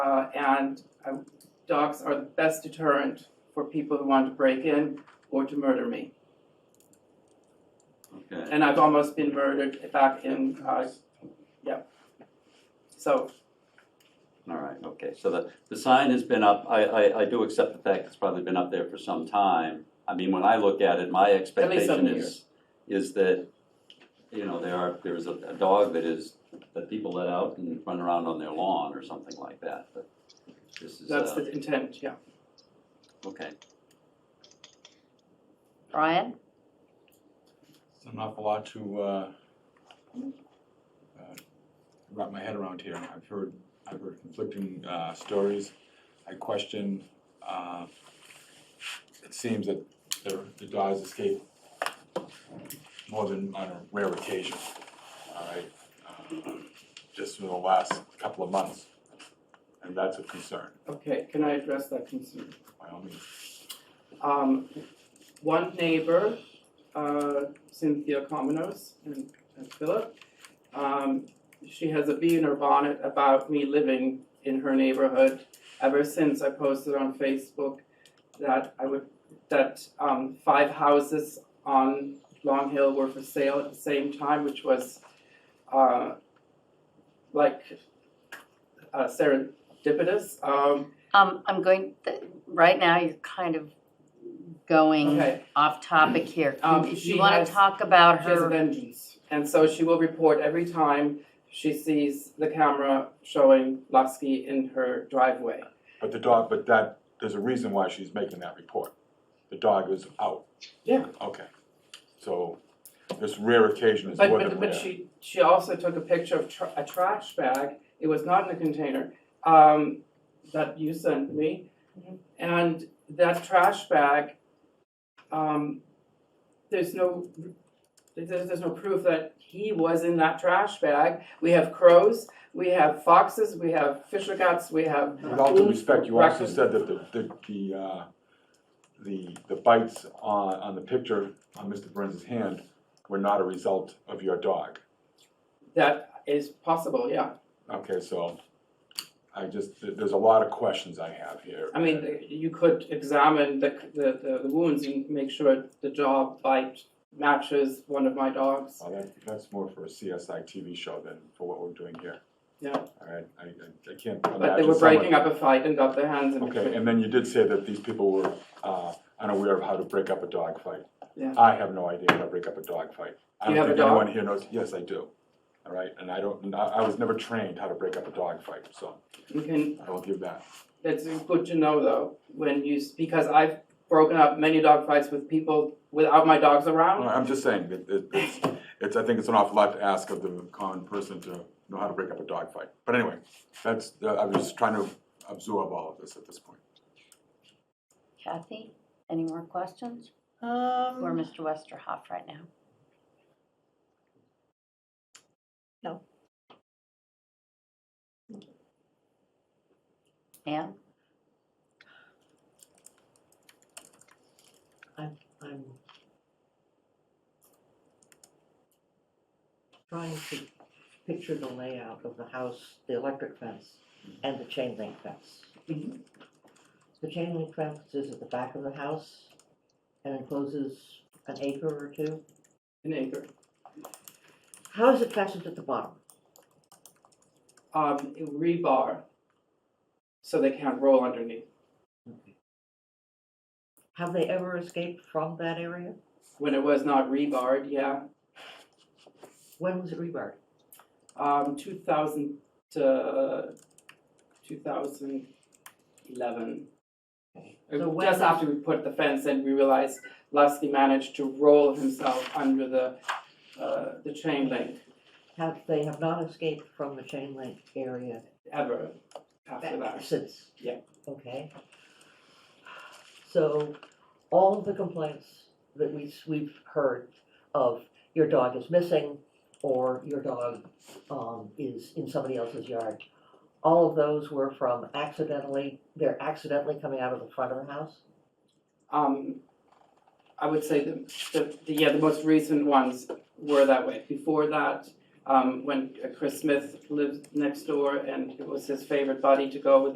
Uh, and I, dogs are the best deterrent for people who want to break in or to murder me. Okay, And I've almost been murdered back in, uh, yeah. So, all right, okay, so the, the sign has been up, I, I, I do accept the fact it's probably been up there for some time. I mean, when I look at it, my seven expectation is, years. is that, you know, there are, there is a, a dog that is, that people let out and run around on their lawn or something like that, but this is, that's uh, the intent, yeah. okay. Brian? It's an awful lot to uh, uh, wrap my head around here. I've heard, I've heard conflicting uh, stories. I question, uh, it seems that the the dogs escape more than on a rare occasion, all right? uh, Just in the last couple of months. And that's a concern, Okay, can I address that concern? by all means. Um, one neighbor, uh, Cynthia Cominos and, and Philip, um, she has a bee in her bonnet about me living in her neighborhood ever since I posted on Facebook that I would, that, um, five houses on Long Hill were for sale at the same time, which was, uh, like, uh, serendipitous, um, Um, I'm going, th- right now, you're kind of going okay. off topic here. Um, If she you want has- to talk about She has a her, vengeance, and so she will report every time she sees the camera showing Lasky in her driveway. But the dog, but that, there's a reason why she's making that report. The dog is out. Yeah. Okay. So this rare occasion is But more but than but rare. she she also took a picture of tr- a trash bag. It was not in a container um, that you sent me, Mhm. and that trash bag. Um, there's no. There's, there's no proof that he was in that trash bag. We have crows, we have foxes, we have fisher cats, we have With all due respect, you also Raccoon. said that the, the, the, uh, the, the bites on, on the picture on Mr. Burns's hand were not a result of your dog. That is possible, yeah. Okay, so I just, th- there's a lot of questions I have here. I mean, you could examine the, the, the- the wounds and make sure the jaw bite matches one of my dogs. Well, that, that's more for a CSI TV show than for what we're doing here. Yeah. All right, I, I, I can't imagine But they were someone- breaking up a fight and got their hands in Okay, between. and then you did say that these people were uh, unaware of how to break up a dog fight. Yeah. I have no idea how to break up a dog fight. I Do you don't have a think anyone here knows, yes, I do. All right, and I don't, I I was never trained how to break up a dog fight, so You can, I will give that. that's good to know though, when you, s- because I've broken up many dog fights with people without my dogs No, around. I'm just saying, that it- it's, it's, I think it's an awful lot to ask of the common person to know how to break up a dog fight. But anyway, that's, uh, I was just trying to absorb all of this at this point. Kathy, any more questions? Or Um, Mr. Westerhoff right now? No. Anne? I'm trying to picture the layout of the house, the electric fence, and the chain link fence. The chain link fence is at the back of the house and encloses an acre or two. An acre. How is it fastened at the bottom? Um, rebar, so they can't roll underneath. Have they ever escaped from that area? When it was not rebarred, yeah, When was it rebarred? um, two thousand, uh, two thousand eleven. So when- Just after we put the fence in, we realized Lusky managed to roll himself under the, uh, the chain link Have, they have not escaped from the chain link area ever after that. Since? Yeah. Okay. So, all of the complaints that we, we've heard of your dog is missing, or your dog, um, is in somebody else's yard, all of those were from accidentally, they're accidentally coming out of the front of the house? Um, I would say the, the, the, yeah, the most recent ones were that way. Before that, uh, um, when Chris Smith lived next door and it was his favorite buddy to go with